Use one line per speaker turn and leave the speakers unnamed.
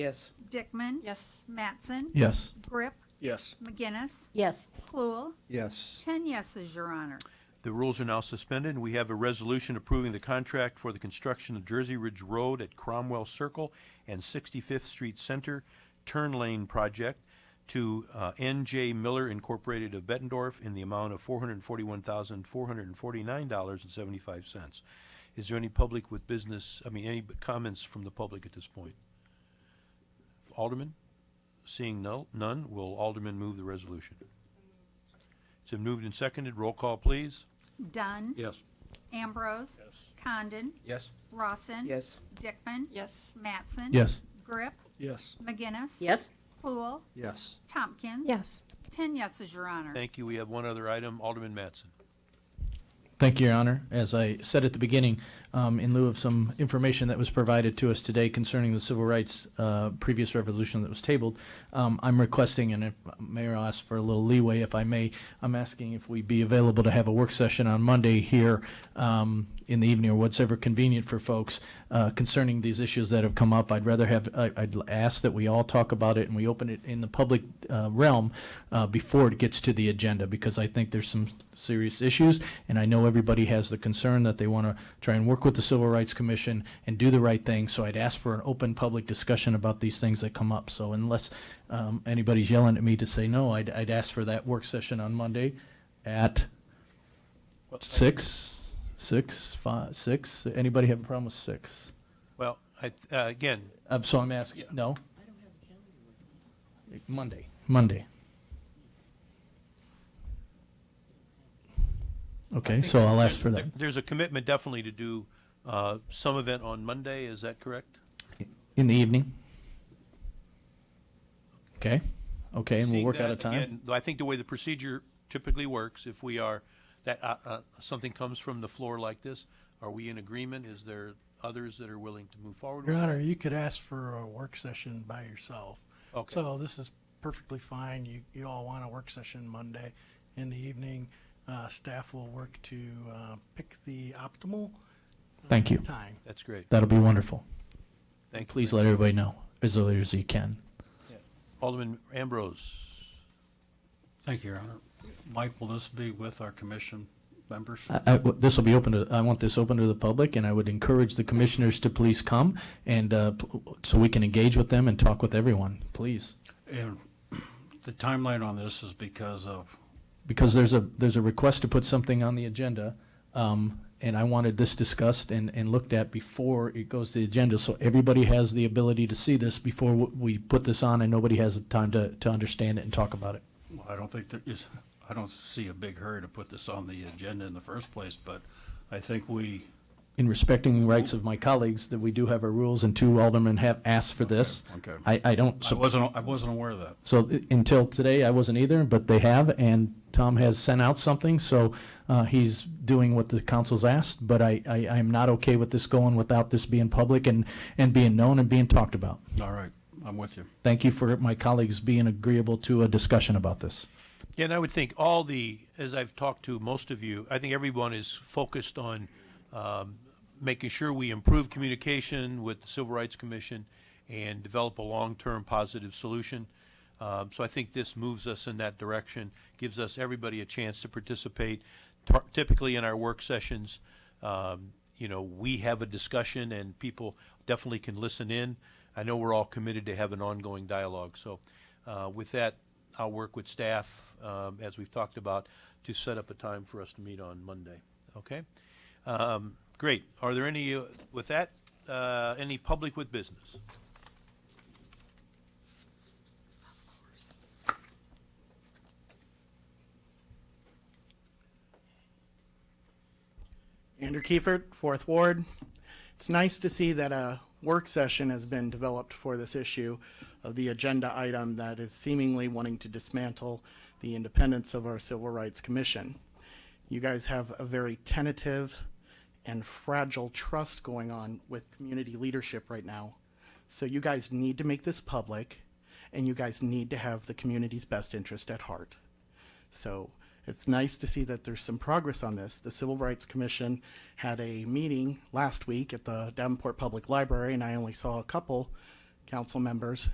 Yes.
Dickman.
Yes.
Mattson.
Yes.
Grip.
Yes.
McGinnis.
Yes.
Cluel.
Yes.
Ten yeses, Your Honor.
The rules are now suspended, and we have a resolution approving the contract for the construction of Jersey Ridge Road at Cromwell Circle and 65th Street Center Turn Lane Project to uh, NJ Miller Incorporated of Bettendorf in the amount of $441,449.75. Is there any public with business, I mean, any comments from the public at this point? Alderman? Seeing no- none, will Alderman move the resolution? It's been moved and seconded. Roll call, please.
Dunn.
Yes.
Ambrose. Condon.
Yes.
Rawson.
Yes.
Dickman.
Yes.
Mattson.
Yes.
Grip.
Yes.
McGinnis.
Yes.
Cluel.
Yes.
Tompkins.
Yes.
Ten yeses, Your Honor.
Thank you. We have one other item, Alderman Mattson.
Thank you, Your Honor. As I said at the beginning, um, in lieu of some information that was provided to us today concerning the civil rights uh, previous resolution that was tabled, um, I'm requesting, and if Mayor I'll ask for a little leeway if I may, I'm asking if we be available to have a work session on Monday here um, in the evening or whatsoever convenient for folks uh, concerning these issues that have come up. I'd rather have, I- I'd ask that we all talk about it and we open it in the public uh, realm uh, before it gets to the agenda because I think there's some serious issues and I know everybody has the concern that they want to try and work with the Civil Rights Commission and do the right thing. So I'd ask for an open public discussion about these things that come up. So unless um, anybody's yelling at me to say no, I'd, I'd ask for that work session on Monday at six, six, five, six. Anybody have a problem with six?
Well, I, uh, again,
Um, so I'm asking, no? Monday, Monday. Okay, so I'll ask for that.
there- there's a commitment definitely to do uh, some event on Monday, is that correct?
In the evening? Okay, okay, and we'll
Seeing
work out
that,
a time.
again, though I think the way the procedure typically works, if we are, that, uh, uh, something comes from the floor like this, are we in agreement? Is there others that are willing to move forward?
Your
with
Honor,
that?
you could ask for a work session by yourself.
Okay.
So this is perfectly fine. You, you all want a work session Monday in the evening. Uh, staff will work to, uh, pick the optimal
Thank you.
time.
That's great.
That'll be wonderful.
Thank you.
Please let everybody know as early as you can.
Alderman Ambrose,
Thank you, Your Honor. Mike, will this be with our commission members?
I- I- This will be open to, I want this open to the public, and I would encourage the commissioners to please come, and uh, pl- so we can engage with them and talk with everyone, please.
And the timeline on this is because of,
Because there's a, there's a request to put something on the agenda, um, and I wanted this discussed and, and looked at before it goes to the agenda, so everybody has the ability to see this before w- we put this on, and nobody has the time to, to understand it and talk about it.
well, I don't think there is, I don't see a big hurry to put this on the agenda in the first place, but I think we,
in respecting the rights of my colleagues, that we do have our rules, and two aldermen have asked for this.
Okay, okay.
I, I don't,
I
so,
wasn't, I wasn't aware of that.
so i- until today, I wasn't either, but they have, and Tom has sent out something, so, uh, he's doing what the council's asked, but I, I, I'm not okay with this going without this being public and, and being known and being talked about.
All right, I'm with you.
Thank you for my colleagues being agreeable to a discussion about this.
Yeah, and I would think all the, as I've talked to most of you, I think everyone is focused on um, making sure we improve communication with the Civil Rights Commission and develop a long-term positive solution. Um, So I think this moves us in that direction, gives us everybody a chance to participate. Tar- Typically, in our work sessions, um, you know, we have a discussion and people definitely can listen in. I know we're all committed to have an ongoing dialogue, so uh, with that, I'll work with staff, um, as we've talked about, to set up a time for us to meet on Monday. Okay? Um, Great. Are there any, uh, with that, uh, any public with business?
Andrew Kiefert, Fourth Ward. It's nice to see that a work session has been developed for this issue of the agenda item that is seemingly wanting to dismantle the independence of our Civil Rights Commission. You guys have a very tentative and fragile trust going on with community leadership right now. So you guys need to make this public and you guys need to have the community's best interest at heart. So it's nice to see that there's some progress on this. The Civil Rights Commission had a meeting last week at the Davenport Public Library, and I only saw a couple council members